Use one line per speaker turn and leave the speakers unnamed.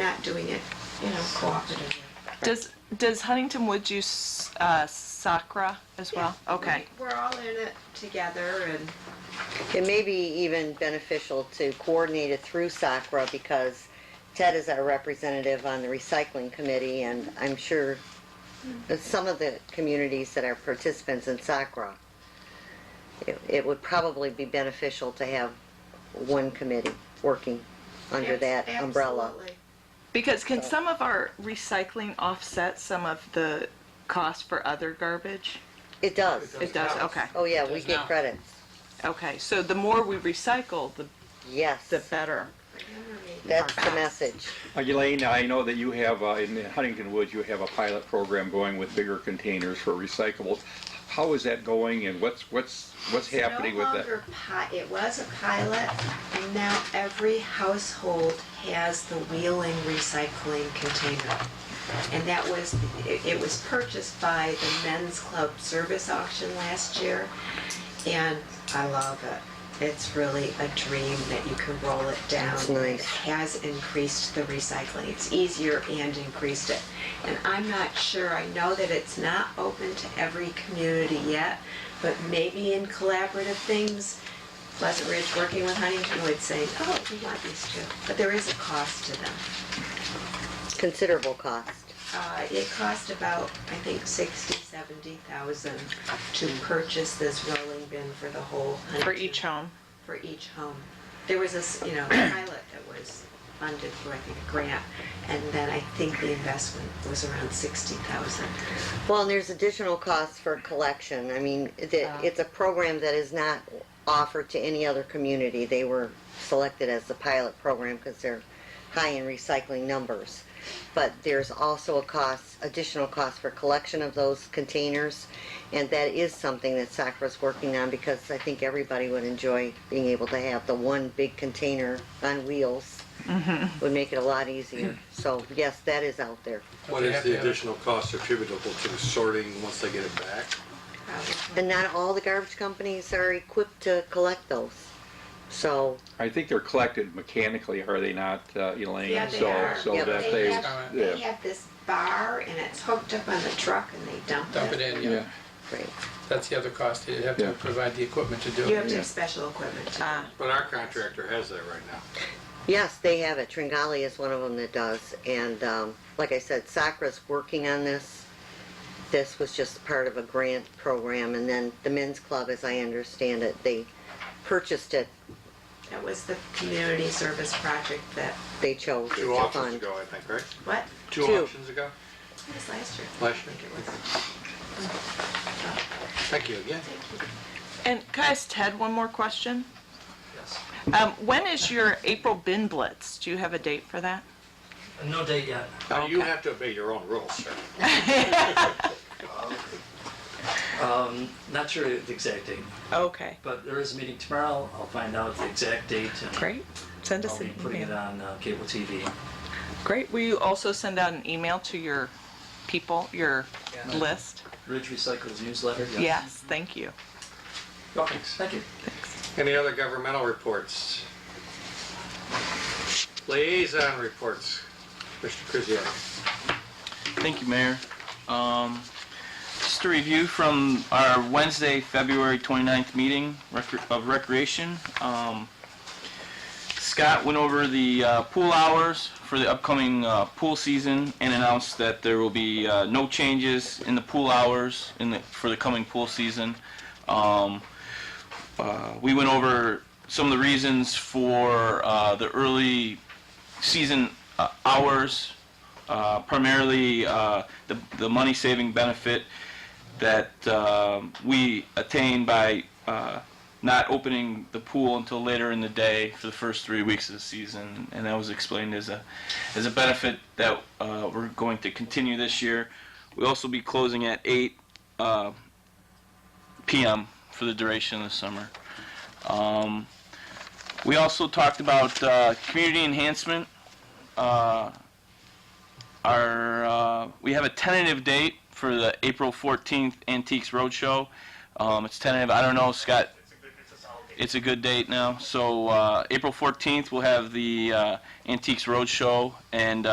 not doing it, you know, cooperatively.
Does, does Huntington Woods use uh, SACRA as well? Okay.
We're all in it together and,
It may be even beneficial to coordinate it through SACRA because Ted is our representative on the recycling committee and I'm sure that some of the communities that are participants in SACRA, it, it would probably be beneficial to have one committee working under that
Abs-
umbrella.
absolutely.
Because can some of our recycling offset some of the cost for other garbage?
It does.
It does, okay.
Oh, yeah, we get credits.
Okay, so the more we recycle, the,
Yes,
the better.
that's the message.
Uh, Elaine, I know that you have, uh, in Huntington Woods, you have a pilot program going with bigger containers for recyclables. How is that going and what's, what's, what's
It's
happening
no
with that?
longer pi- it was a pilot, and now every household has the wheeling recycling container. And that was, it it was purchased by the Men's Club Service Auction last year, and I love it. It's really a dream that you can roll it down.
It's nice.
It has increased the recycling. It's easier and increased it. And I'm not sure, I know that it's not open to every community yet, but maybe in collaborative things, Pleasant Ridge working with Huntington would say, oh, we want these too. But there is a cost to them.
Considerable cost.
Uh, It cost about, I think, 60, 70,000 to purchase this rolling bin for the whole Huntington.
For each home.
For each home. There was this, you know, pilot that was funded through, I think, a grant, and then I think the investment was around 60,000.
Well, and there's additional costs for collection. I mean, that, it's a program that is not offered to any other community. They were selected as the pilot program because they're high in recycling numbers. But there's also a cost, additional cost for collection of those containers. And that is something that SACRA's working on because I think everybody would enjoy being able to have the one big container on wheels. Would make it a lot easier. So yes, that is out there.
What is the additional cost attributable to sorting once they get it back?
probably.
And not all the garbage companies are equipped to collect those. So,
I think they're collected mechanically, are they not, uh, Elaine?
Yeah, they
So-
are.
So
Yeah.
that
They
they,
have, they
yeah,
have this bar, and it's hooked up on the truck, and they dump it.
dump it in,
yeah.
yeah.
great.
That's the other cost, you have
Yeah.
to provide the equipment to do
You have
it.
to have special equipment to do
Ah.
it.
But our contractor has that right now.
Yes, they have it. Tringali is one of them that does. And um, like I said, Sacra's working on this. This was just part of a grant program. And then the men's club, as I understand it, they purchased it.
That was the community service project that,
They chose
Two
to
auctions
fund.
ago, I think, right?
what?
Two
Two.
auctions ago?
It was last year.
Last year.
I think it was.
Thank you again.
And can I ask Ted one more question? Yes. Um, when is your April bin blitz? Do you have a date for that?
No date yet.
Now, you have to obey your own rules, sir.
Um, not sure the exact date,
Okay,
but there is a meeting tomorrow. I'll find out the exact date and
great. Send
I'll
us
be
an
putting it
email.
on uh, cable TV.
Great. Will you also send out an email to your people, your
Yeah.
list?
Ridge Recycles newsletter.
Yes, thank you.
Okay, thank you.
Any other governmental reports? Liaison reports. Mr. Krzyjak.
Thank you, Mayor. Um, Just a review from our Wednesday, February 29th meeting rec- of Recreation. Um, Scott went over the uh, pool hours for the upcoming uh, pool season and announced that there will be uh, no changes in the pool hours in the, for the coming pool season. Um, uh, We went over some of the reasons for uh, the early season uh, hours uh, primarily uh, the, the money saving benefit that um, we attain by uh, not opening the pool until later in the day for the first three weeks of the season, and that was explained as a as a benefit that uh, we're going to continue this year. We'll also be closing at 8 uh, p.m. for the duration of the summer. Um, we also talked about uh, community enhancement. Uh, our uh, we have a tentative date for the April 14th Antiques Roadshow. Um, it's tentative. I don't know, Scott. It's a good date now. So uh, April 14th, we'll have the uh, Antiques Roadshow, and